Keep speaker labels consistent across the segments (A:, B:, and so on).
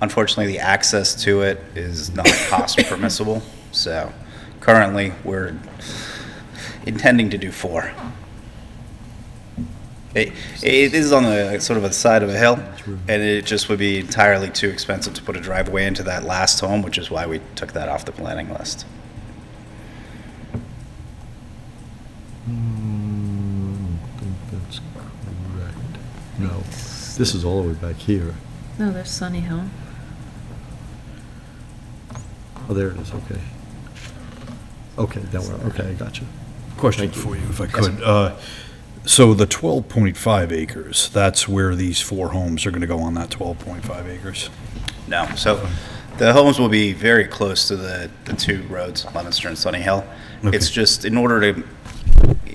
A: Unfortunately, the access to it is not cost permissible, so currently, we're intending to do four. It, it is on the, sort of a side of a hill, and it just would be entirely too expensive to put a driveway into that last home, which is why we took that off the planning list.
B: Hmm, I think that's correct. No, this is all the way back here.
C: No, there's Sunny Hill.
B: Oh, there it is, okay. Okay, that one, okay, I got you.
D: Question for you, if I could. Uh, So the 12.5 acres, that's where these four homes are going to go on that 12.5 acres?
A: No, so the homes will be very close to the, the two roads, Lemonster and Sunny Hill. It's
D: Okay.
A: just, in order to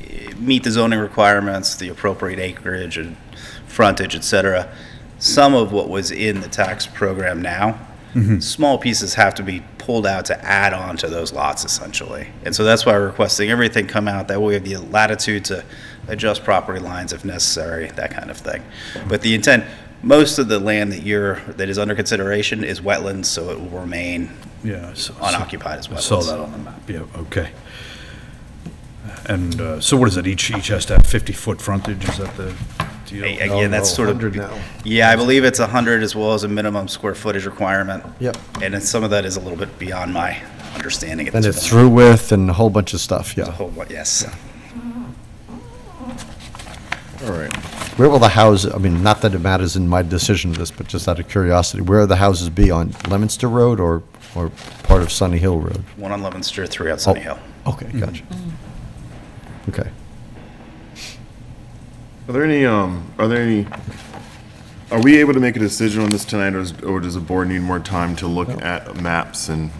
A: eh, meet the zoning requirements, the appropriate acreage and frontage, et cetera, some of what was in the tax program now,
D: Mm-hmm.
A: small pieces have to be pulled out to add on to those lots essentially. And so that's why we're requesting everything come out, that way we have the latitude to adjust property lines if necessary, that kind of thing. But the intent, most of the land that you're, that is under consideration is wetlands, so it will remain
D: Yeah. I saw-
A: unoccupied as
D: I
A: well.
D: saw that on the map, yeah, okay. And uh, so what is it, each, each has to have 50-foot frontage, is that the deal?
A: Again, that's
B: No,
A: sort of.
B: 100 now.
A: Yeah, I believe it's 100 as well as a minimum square footage requirement.
E: Yep.
A: And then some of that is a little bit beyond my understanding at
E: And
A: this
E: it's
A: point.
E: through with and a whole bunch of stuff, yeah.
A: Whole lot, Yes.
E: All right. Where will the houses, I mean, not that it matters in my decision of this, but just out of curiosity, where will the houses be, on Lemonster Road or, or part of Sunny Hill Road?
A: One on Lemonster, three on
D: Oh.
A: Sunny Hill.
E: Okay,
B: Mm-hmm.
E: gotcha. Okay.
F: Are there any, um, are there any, are we able to make a decision on this tonight, or, is- or does the board need more time to look at maps and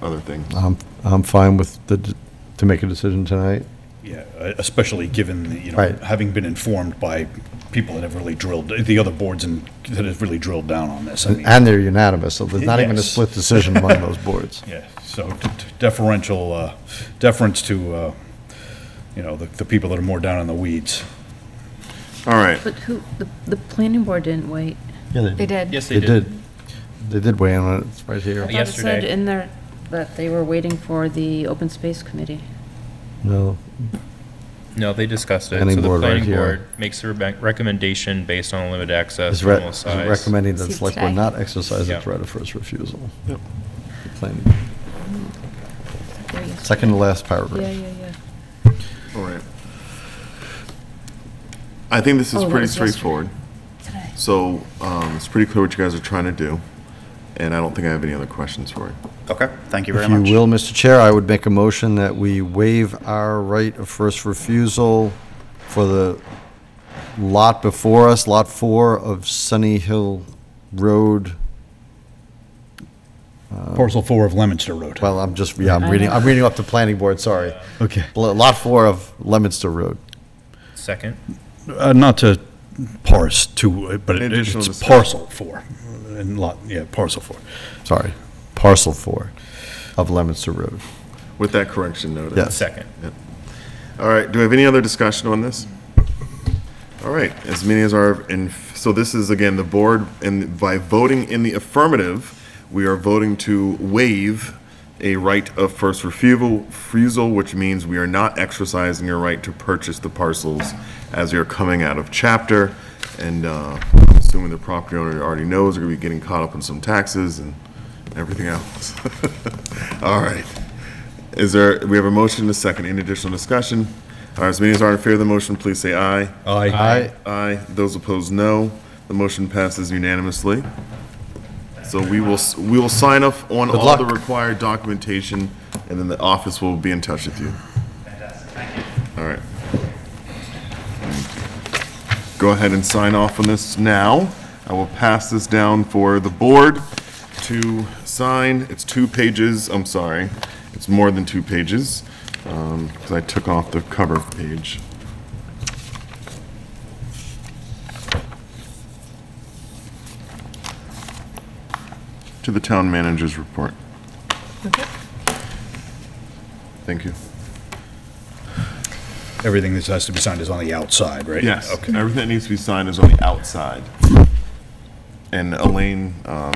F: other things?
E: I'm, I'm fine with the, d- to make a decision tonight.
D: Yeah, uh, especially given, the, you know,
E: Right.
D: having been informed by people that have really drilled, the other boards and, that have really drilled down on this. I mean-
E: And they're unanimous, so there's not even a
D: Yes.
E: split decision among those boards.
D: Yeah, so d- d- deferential, uh, deference to, uh, you know, the the people that are more down in the weeds.
F: All right,
C: But who, the, the planning board didn't wait.
E: Yeah,
G: They did.
H: Yes,
E: They did. They did weigh in on it, it's right
C: I
E: here.
C: thought it said
H: Yesterday.
C: in there that they were waiting for the open space committee.
E: No,
H: No, they discussed it.
E: Planning
H: So the
E: board right
H: planning
E: here.
H: board makes a rec- recommendation based on limited access,
E: it's re-
H: minimal
E: it's
H: size.
E: recommending that
G: See
E: select board
G: today?
E: not exercise its
H: Yeah.
E: right of first refusal.
F: Yep.
E: The planning-
C: There you go.
E: Second to last paragraph.
C: Yeah, yeah, yeah.
F: all right. I think this
C: Oh,
F: is
C: that
F: pretty
C: was yesterday.
F: straightforward.
C: Today.
F: So, um, it's pretty clear what you guys are trying to do, and I don't think I have any other questions for you.
A: Okay, thank you very
E: If
A: much.
E: you will, Mr. Chair, I would make a motion that we waive our right of first refusal for the lot before us, Lot 4 of Sunny Hill Road.
D: Parcel four of Lemonster Road.
E: Well, I'm just, yeah, I'm
C: I
E: reading,
C: know.
E: I'm reading off the planning board, sorry.
D: Okay.
E: Lo- Lot 4 of Lemonster Road.
H: Second.
D: Uh, Not to parse to, but
F: Any
D: it-
F: additional
D: it's
F: discussion?
D: parcel four, and lot, yeah, parcel four.
E: Sorry, parcel 4 of Lemonster Road.
F: With that correction noted.
E: Yes.
H: Second.
F: All right, do we have any other discussion on this? All right, as many as are, and so this is again, the board, and by voting in the affirmative, we are voting to waive a right of first refusal, refusal, which means we are not exercising your right to purchase the parcels as you're coming out of chapter, and uh, assuming the property owner already knows, they're gonna be getting caught up in some taxes and everything else. All right. Is there, we have a motion and a second. Any additional discussion? All right, as many as are in favor of the motion, please say aye.
D: Aye.
E: I,
F: Aye. Those opposed, no. The motion passes unanimously. So we will, s- we will sign off on
E: Good
F: all the
E: luck.
F: required documentation, and then the office will be in touch with you. All right. Go ahead and sign off on this now. I will pass this down for the board to sign. It's two pages, I'm sorry. It's more than two pages, because I took off the cover page. to the town manager's report. Thank you.
D: Everything that has to be signed is on the outside, right?
F: Yes,
D: Okay.
F: everything that needs to be signed is on the outside. And Elaine um,